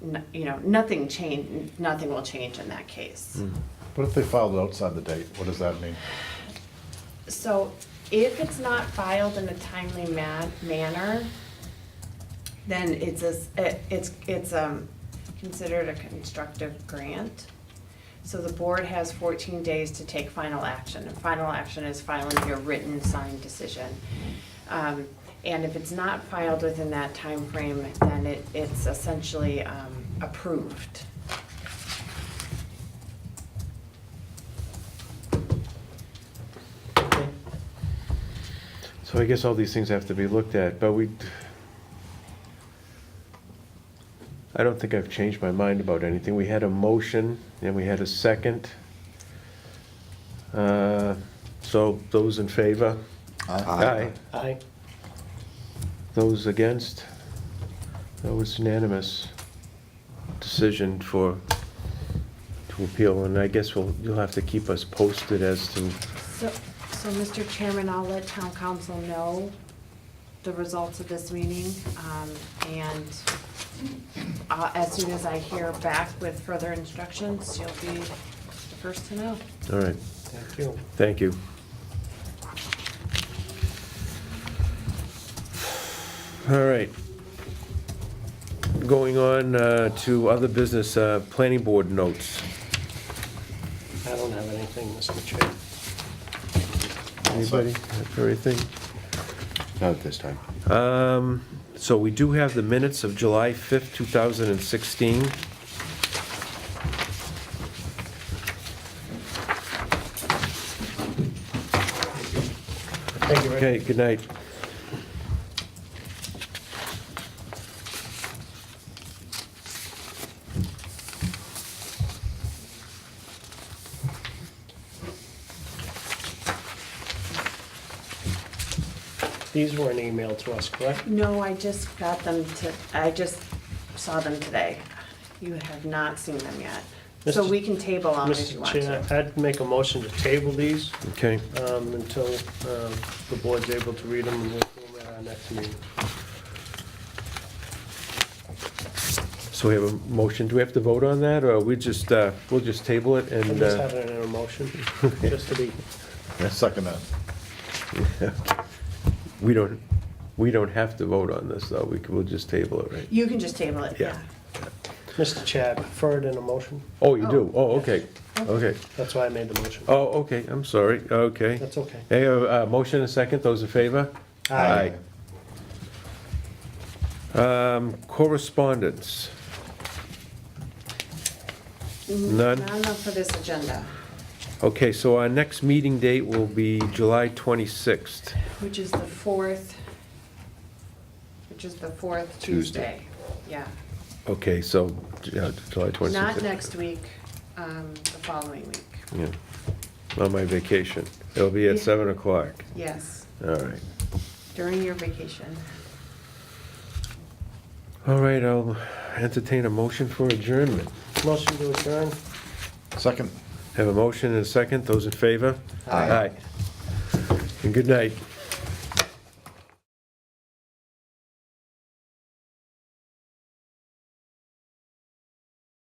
n- you know, nothing change, nothing will change in that case. Mm. What if they filed outside the date? What does that mean? So if it's not filed in a timely ma- manner, then it's a, s- it- it's, it's, um, considered a constructive grant. So the board has fourteen days to take final action, and final action is filing your written signed decision. Um, and if it's not filed within that time frame, then it, it's essentially, um, approved. So I guess all these things have to be looked at, but we, I don't think I've changed my mind about anything. We had a motion and we had a second. Uh, So those in favor? Aye. Aye. Those against? That was unanimous decision for, to appeal, and I guess we'll, you'll have to keep us posted as to, So, so Mr. Chairman, I'll let town council know the results of this meeting, um, and uh, as soon as I hear back with further instructions, you'll be the first to know. all right, Thank you. thank you. All right. Going on uh, to other business, uh, planning board notes. I don't have anything, Mr. Chair. Anybody have anything? Not at this time. Um, So we do have the minutes of July 5th, 2016. Thank you, Rick. Okay, good night. These were an email to us, correct? No, I just got them to, I just saw them today. You have not seen them yet. So Mr. we can table them if you Mr. want to. Chair, I'd make a motion to table these Okay, um, until um, the board's able to read them and we'll do them at our next meeting. so we have a motion. Do we have to vote on that, or we just, uh, we'll just table it I'm and, just uh, having it in a motion, just to be, I second that. we don't, we don't have to vote on this, though. We can, we'll just table it, right? You can just table it, yeah. Yeah. Mr. Chair, I prefer it in a motion. Oh, you do? Oh, okay, okay. That's why I made the motion. Oh, okay, I'm sorry, okay. That's okay. Hey, uh, uh, motion and a second, those in favor? Aye. Um, correspondence. None? Mm-hmm. Not enough for this agenda, Okay, so our next meeting date will be July 26th. which is the fourth, which is the fourth Tuesday. Tuesday. Yeah. Okay, so, yeah, July 26th. Not next week, um, the following week, Yeah, on my vacation. It'll be at Yeah. 7 o'clock. yes, All right. during your vacation. All right, I'll entertain a motion for adjournment. Motion to adjourn. Second. Have a motion and a second, those in favor? Aye. And good night.